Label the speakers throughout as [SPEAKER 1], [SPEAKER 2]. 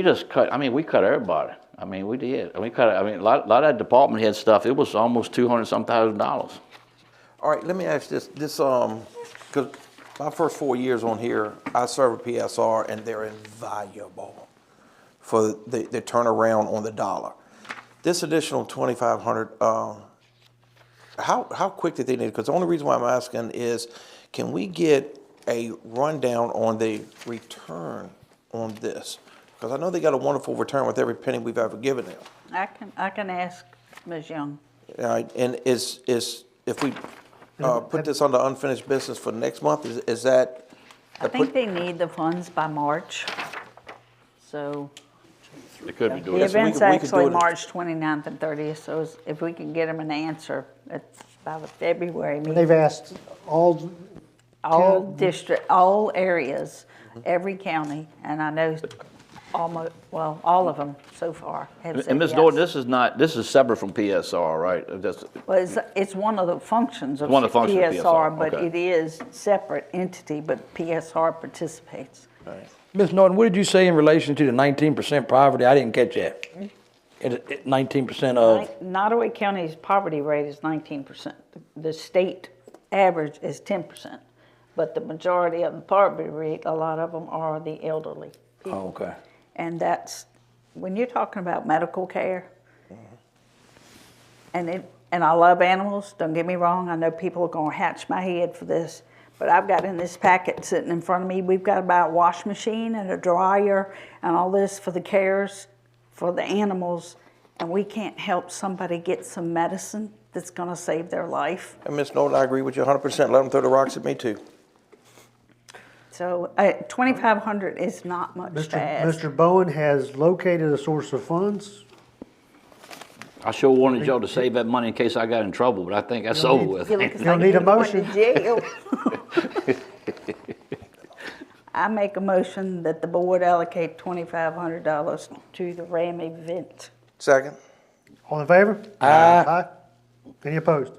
[SPEAKER 1] We just cut, I mean, we cut everybody. I mean, we did. We cut, I mean, a lot, lot of that department head stuff, it was almost two hundred some thousand dollars.
[SPEAKER 2] All right, let me ask this, this, um, cause my first four years on here, I served a PSR and they're invaluable for the, the turnaround on the dollar. This additional twenty-five hundred, um, how, how quick did they need? Cause the only reason why I'm asking is, can we get a rundown on the return on this? Cause I know they got a wonderful return with every penny we've ever given them.
[SPEAKER 3] I can, I can ask Ms. Young.
[SPEAKER 2] All right, and is, is, if we uh, put this under unfinished business for next month, is is that?
[SPEAKER 1] Uh,
[SPEAKER 3] I think they need the funds by March, so.
[SPEAKER 1] They could be doing
[SPEAKER 3] The
[SPEAKER 2] Yes,
[SPEAKER 1] it.
[SPEAKER 2] we could-
[SPEAKER 3] event's
[SPEAKER 2] we could do
[SPEAKER 3] actually
[SPEAKER 2] it.
[SPEAKER 3] March 29th and 30th, so it's- if we can get them an answer, it's by the February meeting.
[SPEAKER 4] They've asked all,
[SPEAKER 3] All
[SPEAKER 4] Cal-
[SPEAKER 3] district, all areas,
[SPEAKER 1] Mm-hmm.
[SPEAKER 3] every county, and I know almost, well, all of them so far have said
[SPEAKER 1] And Ms.
[SPEAKER 3] yes.
[SPEAKER 1] Norton, this is not, this is separate from PSR, right? That's-
[SPEAKER 3] Well, it's, it's one of the functions of
[SPEAKER 1] One of the functions of PSR,
[SPEAKER 3] PSR, but
[SPEAKER 1] okay.
[SPEAKER 3] it is separate entity, but PSR participates.
[SPEAKER 5] Ms. Norton, what did you say in relation to the nineteen percent poverty? I didn't catch that. Nineteen percent of,
[SPEAKER 3] Like, Nottaway County's poverty rate is nineteen percent. The state average is ten percent. But the majority of the poverty rate, a lot of them are the elderly.
[SPEAKER 5] oh, okay.
[SPEAKER 3] And that's, when you're talking about medical care, and it, and I love animals, don't get me wrong, I know people are gonna hatch my head for this, but I've got in this packet sitting in front of me, we've got about a wash machine and a dryer and all this for the cares, for the animals, and we can't help somebody get some medicine that's gonna save their life.
[SPEAKER 2] And Ms. Norton, I agree with you 100%. Let them throw the rocks at me too.
[SPEAKER 3] So, uh, twenty-five hundred is not much to
[SPEAKER 4] Mr.
[SPEAKER 3] ask.
[SPEAKER 4] Mr. Bowen has located a source of funds.
[SPEAKER 1] I sure wanted y'all to save that money in case I got in trouble, but I think that's over with.
[SPEAKER 3] You look as
[SPEAKER 4] You'll
[SPEAKER 3] like
[SPEAKER 4] need a
[SPEAKER 3] you're going to
[SPEAKER 4] motion.
[SPEAKER 3] jail. I make a motion that the board allocate twenty-five hundred dollars to the Ram event.
[SPEAKER 2] Second?
[SPEAKER 4] All in favor? Aye. Any opposed?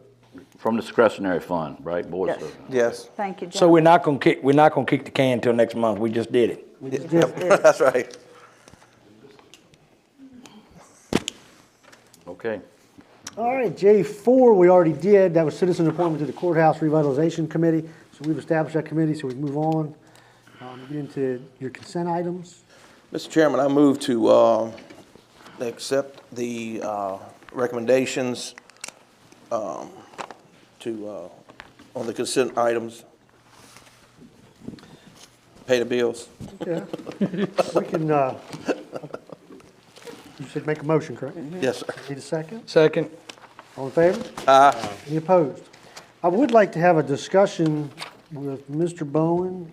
[SPEAKER 1] From discretionary fund, right? Board
[SPEAKER 3] Yes.
[SPEAKER 1] service.
[SPEAKER 2] Yes.
[SPEAKER 3] Thank you, John.
[SPEAKER 5] So we're not gonna kick, we're not gonna kick the can till next month. We just did it.
[SPEAKER 2] That's right.
[SPEAKER 1] Okay.
[SPEAKER 4] All right, J4, we already did. That was citizen appointment to the courthouse revitalization committee. So we've established that committee, so we can move on. Um, Get into your consent items.
[SPEAKER 2] Mr. Chairman, I move to uh, accept the uh, recommendations um, to, uh, on the consent items. Pay the bills.
[SPEAKER 4] Yeah. We can, uh, you should make a motion, correct?
[SPEAKER 2] Yes, sir.
[SPEAKER 4] Need a second?
[SPEAKER 5] Second.
[SPEAKER 4] All in favor? Aye. Any opposed? I would like to have a discussion with Mr. Bowen.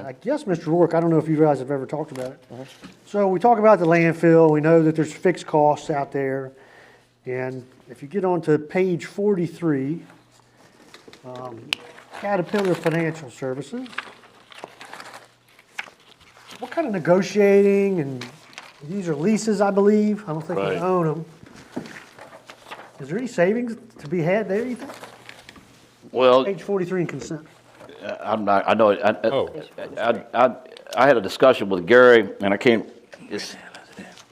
[SPEAKER 4] I guess, Mr. Rourke, I don't know if you guys have ever talked about it. So we talk about the landfill, we know that there's fixed costs out there. And if you get onto page forty-three, um, Caterpillar Financial Services. What kind of negotiating and, these are leases, I believe, I don't think we
[SPEAKER 1] Right.
[SPEAKER 4] own them. Is there any savings to be had there, you think?
[SPEAKER 1] Well,
[SPEAKER 4] Page 43 in consent.
[SPEAKER 1] I'm not, I know, I, I, I- I, I had a discussion with Gary, and I can't, it's,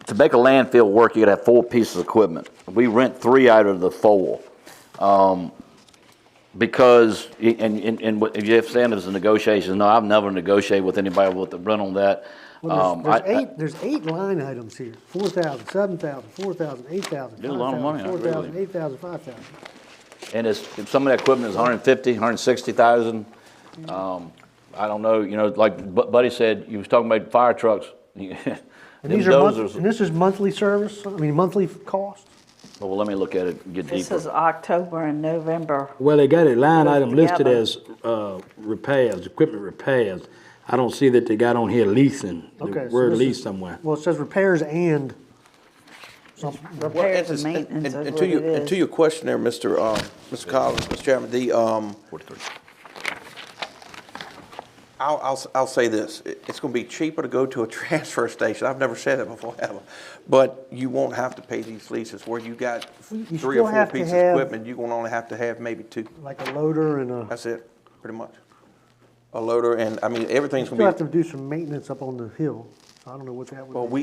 [SPEAKER 1] to make a landfill work, you gotta have four pieces of equipment. We rent three out of the four. Um, Because, and, and, and what Jeff Sanders, the negotiations, no, I've never negotiated with anybody with the rent on that.
[SPEAKER 4] Well,
[SPEAKER 1] Um,
[SPEAKER 4] there's,
[SPEAKER 1] I- I-
[SPEAKER 4] there's eight, there's eight line items here, 4,000, 7,000, 4,000, 8,000,
[SPEAKER 1] There's a lot of money,
[SPEAKER 4] 5,000,
[SPEAKER 1] I agree with
[SPEAKER 4] 4,000,
[SPEAKER 1] you.
[SPEAKER 4] 8,000, 5,000.
[SPEAKER 1] And it's, if some of that equipment is 150, 160,000. um, I don't know, you know, like Bu- Buddy said, you was talking about fire trucks.
[SPEAKER 4] And these are, month- and this is monthly service, I mean, monthly cost?
[SPEAKER 1] Well, let me look at it, and get deeper.
[SPEAKER 3] This is October and November.
[SPEAKER 6] Well, they got a line item listed
[SPEAKER 3] Together.
[SPEAKER 6] as uh, repairs, equipment repairs. I don't see that they got on here leasing,
[SPEAKER 4] Okay,
[SPEAKER 6] the
[SPEAKER 4] so
[SPEAKER 6] word
[SPEAKER 4] this
[SPEAKER 6] lease
[SPEAKER 4] is-
[SPEAKER 6] somewhere.
[SPEAKER 4] Well, it says repairs and something.
[SPEAKER 2] Well,
[SPEAKER 3] Repairs and
[SPEAKER 2] it's- and- and-
[SPEAKER 3] maintenance is
[SPEAKER 2] and
[SPEAKER 3] what
[SPEAKER 2] to you-
[SPEAKER 3] it
[SPEAKER 2] And
[SPEAKER 3] is.
[SPEAKER 2] to your question there, Mr. um, Mr. Collins, Mr. Chairman, the, um, I'll, I'll, s- I'll say this, It- it's gonna be cheaper to go to a transfer station, I've never said that before, ever. But you won't have to pay these leases, where you got
[SPEAKER 4] you
[SPEAKER 2] three or
[SPEAKER 4] still
[SPEAKER 2] four
[SPEAKER 4] have to
[SPEAKER 2] pieces of
[SPEAKER 4] have-
[SPEAKER 2] equipment, you're gonna only have to have maybe two.
[SPEAKER 4] Like a loader and a,
[SPEAKER 2] That's it, pretty much. A loader and, I mean, everything's
[SPEAKER 4] still
[SPEAKER 2] gonna
[SPEAKER 4] have
[SPEAKER 2] be,
[SPEAKER 4] to do some maintenance up on the hill.
[SPEAKER 7] I don't know what that would be.
[SPEAKER 4] Well, we,